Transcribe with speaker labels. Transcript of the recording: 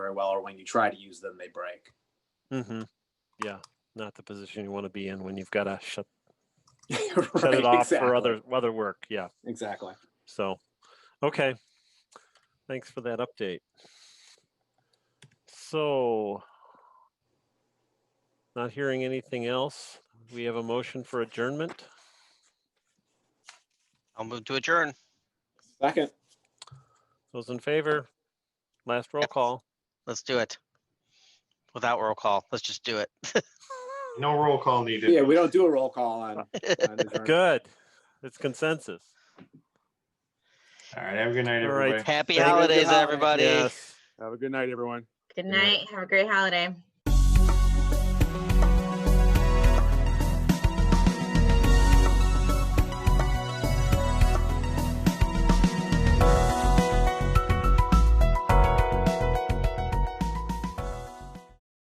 Speaker 1: very well, or when you try to use them, they break.
Speaker 2: Mm-hmm. Yeah, not the position you want to be in when you've got to shut shut
Speaker 1: Right,
Speaker 2: it off
Speaker 1: exactly.
Speaker 2: for other other work. Yeah.
Speaker 1: Exactly.
Speaker 2: So, okay. Thanks for that update. So, not hearing anything else, we have a motion for adjournment.
Speaker 3: I'll move to adjourn.
Speaker 1: Second.
Speaker 2: Those in favor? Last roll call.
Speaker 3: Let's do it. Without roll call, let's just do it.
Speaker 4: No roll call needed.
Speaker 1: Yeah, we don't do a roll call on. on adjournment.
Speaker 2: Good. It's consensus.
Speaker 4: All right, have a good night,
Speaker 2: All right.
Speaker 4: everybody.
Speaker 3: Happy
Speaker 2: Thank you.
Speaker 3: holidays,
Speaker 1: Holiday.
Speaker 3: everybody.
Speaker 2: Yes.
Speaker 5: Have a good night, everyone.
Speaker 6: Good
Speaker 2: night.
Speaker 6: night. Have a great holiday.